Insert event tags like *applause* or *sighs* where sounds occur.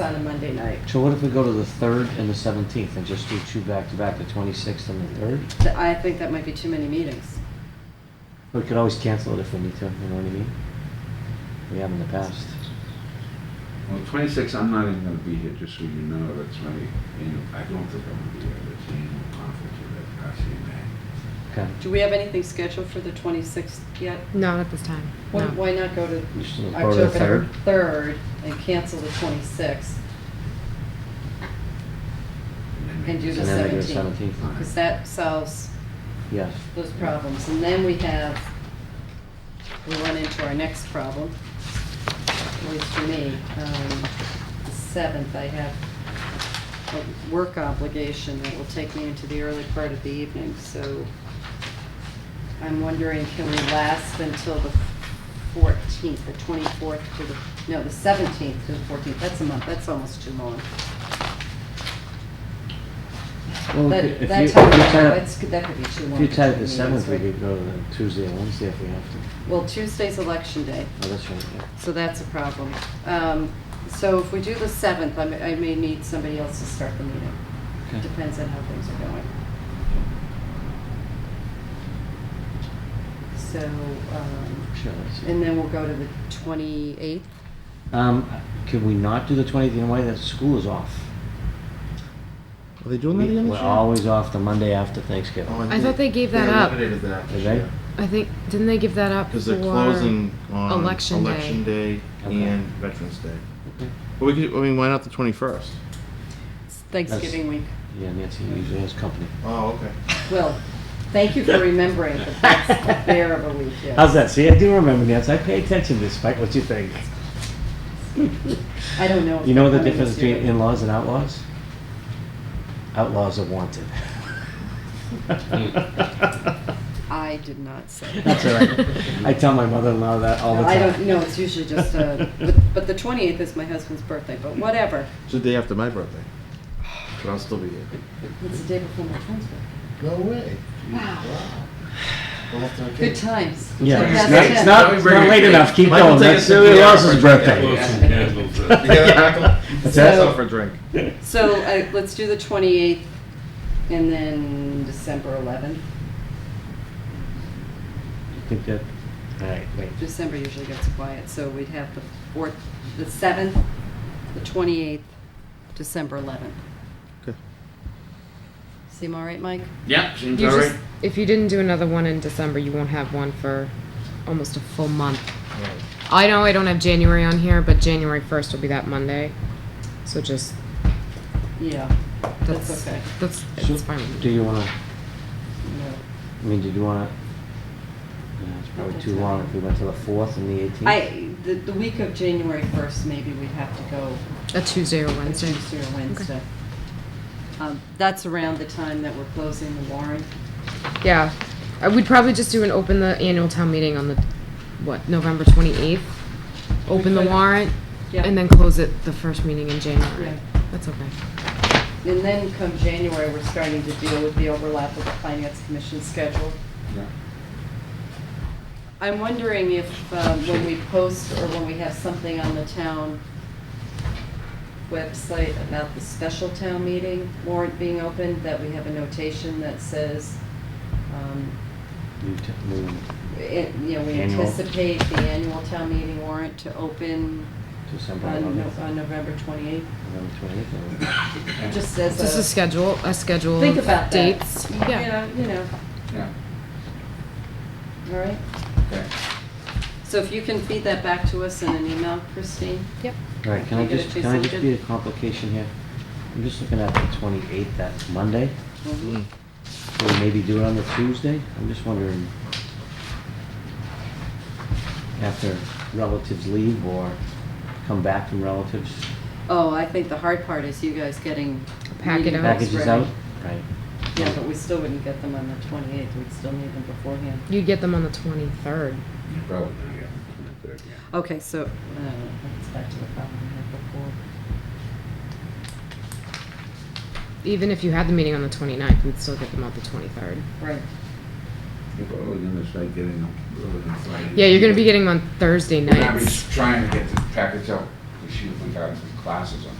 on a Monday night. So what if we go to the third and the seventeenth and just do two back to back, the twenty-sixth and the third? Th- I think that might be too many meetings. We could always cancel it if we need to, you know what I mean? We have in the past. Well, 26, I'm not even going to be here, just so you know, that's my, annual I don't think I'm going to be here, that's the annual conference with FRCMA. Okay. Do we have anything scheduled for the 26th yet? Not at this time. Why- no. Why not go to We should go to the October third. 3rd and cancel the 26th? And do the And then we do the *laughs* *laughs* 17th, 17th. because that solves Yes. those problems. And then we have, we run into our next problem, at least for me. Um, The 7th, I have a work obligation that will take me into the early part of the evening, so I'm wondering, can we last until the 14th, the 24th to the, no, the 17th to the 14th? That's a month, that's almost too long. Well, That, if you- that if time, you tie it- that's, that could be too long. If you for tied two it to meetings, seventh, we right? could go to the Tuesday and Wednesday if we have to. Well, Tuesday's election day, Oh, that's right, yeah. so that's a problem. Um, So if we do the 7th, I may- I may need somebody else to start the meeting. Depends on how things are going. So, um, Sure, let's see. and then we'll go to the 28th. Um, could we not do the twentieth, you know why, that school is off. Are they doing that again this We're year? always off the Monday after Thanksgiving. Oh, I thought they gave that up. eliminated that Did they? I think didn't they give that up Because for they're closing on election day. Election Day Okay. and Veterans Day. Okay. But we could, I mean, why not the 21st? It's Thanksgiving week. Yeah, Nancy usually has company. Oh, okay. Well, thank you for remembering that *laughs* that's the bear of a week, yes. How's that? See, I do remember Nancy. I pay attention despite what you think. I don't know. if You know they're the coming difference this year, between in-laws and outlaws? Outlaws are wanted. but I did not say. that. That's all *laughs* right. I tell my mother-in-law that all the No, time. *laughs* I don't, e- no, it's usually just, *laughs* uh, but, but the twenty-eighth is my husband's birthday, but whatever. It's the day after my birthday. *sighs* But I'll still be here. It's the day before my twins' birthday. No way. *sighs* Wow. We'll have to have Good cake. *laughs* times. Yeah, Like, it's that's not, it. it's not, it's not late enough. Keep Michael, going. take That's us into somebody our else's break. birthday. Yeah. some candles. uh, You got that, *laughs* Michael? What's That's So- that? all for a drink. So, uh, let's do the twenty-eighth and then December eleventh. Think that- All right, wait. December usually gets quiet, so we'd have the fourth, the seventh, the twenty-eighth, December eleventh. Okay. Seem all right, Mike? Yep, seems You all just, right. if you didn't do another one in December, you won't have one for almost a full month. I know I don't have January on here, but January first will be that Monday, so just Yeah, that's that's okay. That's So, it's fine. with Do me. you wanna, No. I mean, did you wanna? Yeah, it's probably That's too all long right. if we went to the fourth and the eighteenth. I, the, the week of January first, maybe we'd have to go A Tuesday or Wednesday. Tuesday or Wednesday. Um, That's around the time that we're closing the warrant. Yeah, I would probably just do an open the annual town meeting on the what November twenty eighth. Open the could. warrant Yeah. and then close it the first meeting in January. Yeah. That's okay. And then come January, we're starting to deal with the overlap of the finance commission schedule. Yeah. I'm wondering if, um, when we post or when we have something on the town website about the special town meeting warrant being opened, that we have a notation that says, um, it- you know, we Annual. anticipate the annual town meeting warrant to open December on Uh, No- eleventh, on November 28th. November twenty-eighth. It *laughs* Just says Just a schedule, a schedule Think of about that. dates. Yeah. You know, you know, Yeah, all right? okay. So if you can feed that back to us in an email, Christine? Yep. All right, can I You get just, it, can I Jason? just be a complication here? I'm just looking at the twenty-eighth, that Monday. Mm-hmm. Mm. Mhm. Can we maybe do it on the Tuesday? I'm just wondering. After relatives leave or come back from relatives, Oh, I think the hard part is you guys getting. A packet meeting out. notes packages ready. out? Right. Yeah, but we still wouldn't get them on the 28th, we'd still need them beforehand. You'd get them on the twenty third. You Probably not, yeah, 23rd, yeah. Okay, so, uh, that's back to the problem we had before. Even if you had the meeting on the 29th, we'd still get them out the twenty third. Right. You're probably going to start getting them early on Friday. Yeah, you're gonna be getting them on Thursday We're gonna be nights. trying to get the package out, because she, we got some classes on